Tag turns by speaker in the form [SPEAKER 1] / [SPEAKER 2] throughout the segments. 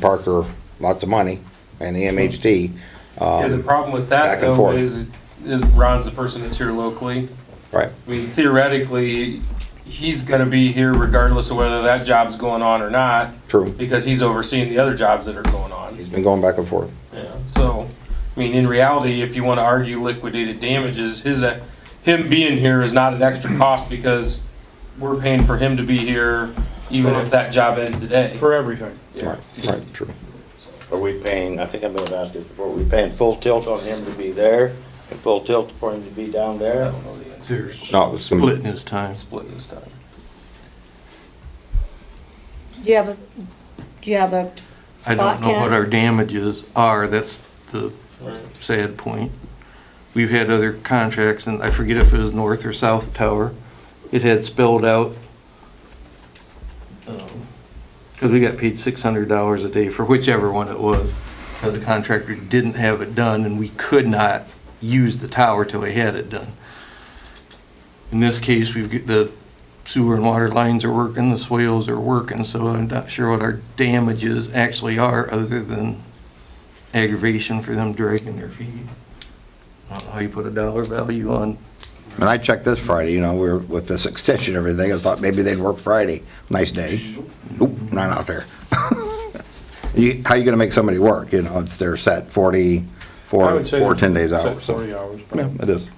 [SPEAKER 1] Parker lots of money and the MHT.
[SPEAKER 2] Yeah, the
[SPEAKER 1] Um,
[SPEAKER 2] problem with
[SPEAKER 1] back
[SPEAKER 2] that
[SPEAKER 1] and
[SPEAKER 2] though
[SPEAKER 1] forth.
[SPEAKER 2] is, is Ron's the person that's here locally.
[SPEAKER 1] right,
[SPEAKER 2] I mean theoretically, he's gonna be here regardless of whether that job's going on or not,
[SPEAKER 1] true.
[SPEAKER 2] because he's overseeing the other jobs that are going on.
[SPEAKER 1] He's been going back and forth.
[SPEAKER 2] Yeah, so, I mean, in reality, if you wanna argue liquidated damages, his, uh, him being here is not an extra cost because we're paying for him to be here even if that job ends today.
[SPEAKER 3] For everything.
[SPEAKER 2] Yeah.
[SPEAKER 1] Right, right, true.
[SPEAKER 4] Are we paying, I think I may have asked this before, are we paying full tilt on him to be there and full tilt for him to be down
[SPEAKER 2] I
[SPEAKER 4] there?
[SPEAKER 2] don't know the answer.
[SPEAKER 5] They're
[SPEAKER 1] No, it was some-
[SPEAKER 5] splitting his time.
[SPEAKER 2] Splitting this time.
[SPEAKER 6] Do you have a, do you have a,
[SPEAKER 5] I don't know what
[SPEAKER 6] Podcast.
[SPEAKER 5] our damages are, that's the
[SPEAKER 2] Right.
[SPEAKER 5] sad point. We've had other contracts, and I forget if it was North or South Tower, it had spelled out, because we got paid six hundred dollars a day for whichever one it was, because the contractor didn't have it done, and we could not use the tower till we had it done. In this case, we've, got- the sewer and water lines are working, the swales are working, so I'm not sure what our damages actually are, other than aggravation for them dragging their feet. I don't know how you put a dollar value on,
[SPEAKER 1] And I checked this Friday, you know, we were with this extension and everything. I thought maybe they'd work Friday. Nice day. Nope, not out there. You, how you gonna make somebody work? You know, it's, they're set forty,
[SPEAKER 3] I
[SPEAKER 1] four,
[SPEAKER 3] would say
[SPEAKER 1] four ten days
[SPEAKER 3] set
[SPEAKER 1] out, so.
[SPEAKER 3] Forty hours.
[SPEAKER 1] Yeah, it is.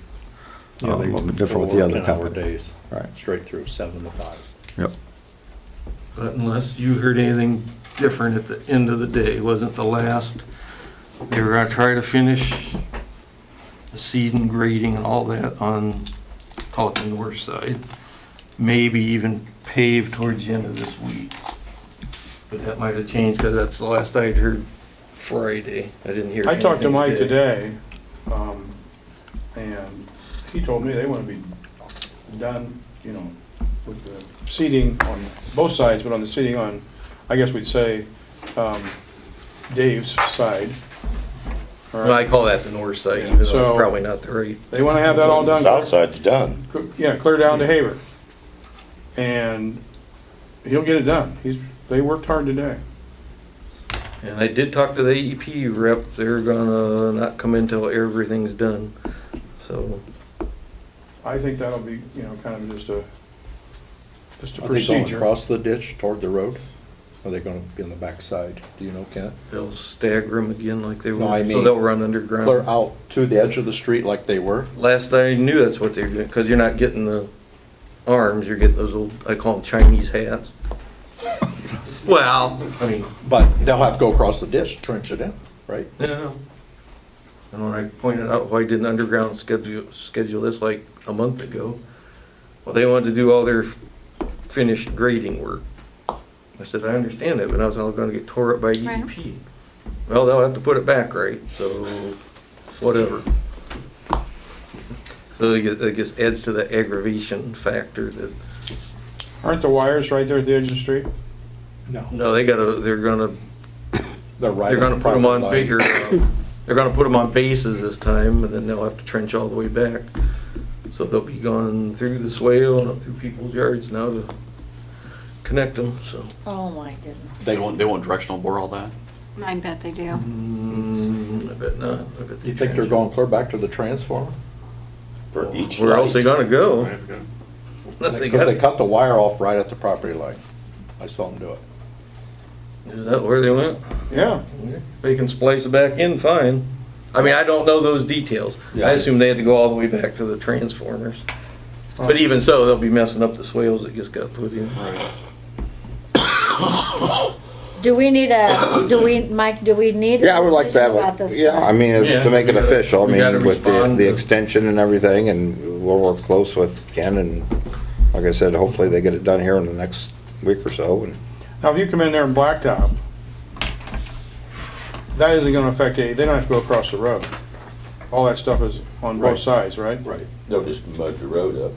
[SPEAKER 1] Um, Different with the other company.
[SPEAKER 7] days,
[SPEAKER 1] Right.
[SPEAKER 7] straight through, seven to five.
[SPEAKER 1] Yep.
[SPEAKER 5] but unless you heard anything different at the end of the day, it wasn't the last. They were gonna try to finish the seed and grading and all that on, call it the north side. Maybe even pave towards the end of this week. But that might have changed, because that's the last I'd heard Friday. I didn't hear
[SPEAKER 3] I talked to
[SPEAKER 5] anything
[SPEAKER 3] Mike today, um, and he told me they wanna be done, you know, with the seating on both sides, but on the seating on, I guess we'd say, um, Dave's side. All
[SPEAKER 5] Well, I
[SPEAKER 3] right.
[SPEAKER 5] call that the north side, even though it's
[SPEAKER 3] So-
[SPEAKER 5] probably not the right.
[SPEAKER 3] They wanna have that all done.
[SPEAKER 4] South side's done.
[SPEAKER 3] cl- Yeah, clear down to Haver. And he'll get it done. He's, they worked hard today.
[SPEAKER 5] And I did talk to the AEP rep, they're gonna not come in till everything's done, so.
[SPEAKER 3] I think that'll be, you know, kind of just a, just a
[SPEAKER 7] Are they going
[SPEAKER 3] procedure.
[SPEAKER 7] across the ditch toward the road? Are they gonna be on the backside? Do you know, Kent?
[SPEAKER 5] They'll stagger them again like they were,
[SPEAKER 7] No, I
[SPEAKER 5] so
[SPEAKER 7] mean-
[SPEAKER 5] they'll run
[SPEAKER 7] Clear
[SPEAKER 5] underground.
[SPEAKER 7] out to the edge of the street like they were?
[SPEAKER 5] Last I knew, that's what they were doing, cause you're not getting the arms, you're getting those old, I call them Chinese hats. Well, I mean,
[SPEAKER 7] But they'll have to go across the ditch, trench it in, right?
[SPEAKER 5] no, no. And when I pointed out why didn't underground schedule, schedule this like a month ago, well, they wanted to do all their finished grading work. I said, I understand that, but I was all gonna get tore up by
[SPEAKER 6] Right.
[SPEAKER 5] EDP. Well, they'll have to put it back right, so whatever. So it ju- it just adds to the aggravation factor that,
[SPEAKER 3] Aren't the wires right there at the edge of the street?
[SPEAKER 5] no, they gotta, they're gonna
[SPEAKER 7] They're right.
[SPEAKER 5] They're gonna put them
[SPEAKER 7] private
[SPEAKER 5] on
[SPEAKER 7] line.
[SPEAKER 5] bigger, uh, they're gonna put them on bases this time, and then they'll have to trench all the way back. So they'll be going through the swale and up through people's yards now to connect them, so.
[SPEAKER 6] oh my goodness.
[SPEAKER 8] They won't, they won't directional bore all that?
[SPEAKER 9] I bet they do.
[SPEAKER 5] Mm, I bet not, I bet they.
[SPEAKER 7] You think they're
[SPEAKER 5] trench.
[SPEAKER 7] going clear back to the transformer?
[SPEAKER 4] For each
[SPEAKER 5] Where else they
[SPEAKER 4] light.
[SPEAKER 5] gonna go? They
[SPEAKER 7] Because they
[SPEAKER 5] got-
[SPEAKER 7] cut the wire off right at the property line. I saw them do it.
[SPEAKER 5] Is that where they went?
[SPEAKER 3] Yeah,
[SPEAKER 5] They can splice it back in, fine. I mean, I don't know those details.
[SPEAKER 7] Yeah.
[SPEAKER 5] I assume they had to go all the way back to the transformers. But even so, they'll be messing up the swales that just got put in.
[SPEAKER 6] Do we need a, do we, Mike, do we need
[SPEAKER 1] Yeah, I
[SPEAKER 6] a
[SPEAKER 1] would like to
[SPEAKER 6] decision
[SPEAKER 1] have,
[SPEAKER 6] about
[SPEAKER 1] a
[SPEAKER 6] this?
[SPEAKER 1] yeah, I mean,
[SPEAKER 5] Yeah,
[SPEAKER 1] to make
[SPEAKER 5] we
[SPEAKER 1] it
[SPEAKER 5] gotta-
[SPEAKER 1] official, I
[SPEAKER 5] we gotta
[SPEAKER 1] mean, with the,
[SPEAKER 5] respond
[SPEAKER 1] the
[SPEAKER 5] to-
[SPEAKER 1] extension and everything, and we'll work close with Ken, and like I said, hopefully they get it done here in the next week or so, and
[SPEAKER 3] now if you come in there and blacktop, that isn't gonna affect any, they don't have to go across the road. All that stuff is on both
[SPEAKER 4] Right.
[SPEAKER 3] sides, right?
[SPEAKER 7] Right.
[SPEAKER 4] They'll just mud the road up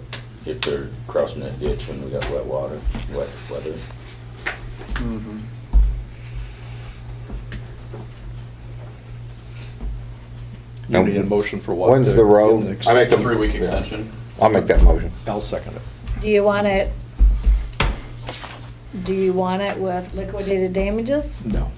[SPEAKER 4] if they're crossing that ditch when we got wet water, wet weather.
[SPEAKER 7] You need a motion for what?
[SPEAKER 1] when's
[SPEAKER 7] to
[SPEAKER 1] the
[SPEAKER 7] get
[SPEAKER 1] road?
[SPEAKER 7] an
[SPEAKER 1] I
[SPEAKER 7] extension?
[SPEAKER 1] make a-
[SPEAKER 8] Three-week
[SPEAKER 1] Yeah.
[SPEAKER 8] extension?
[SPEAKER 1] I'll make that motion.
[SPEAKER 7] I'll second it.
[SPEAKER 6] Do you want it, do you want it with liquidated damages?
[SPEAKER 7] No.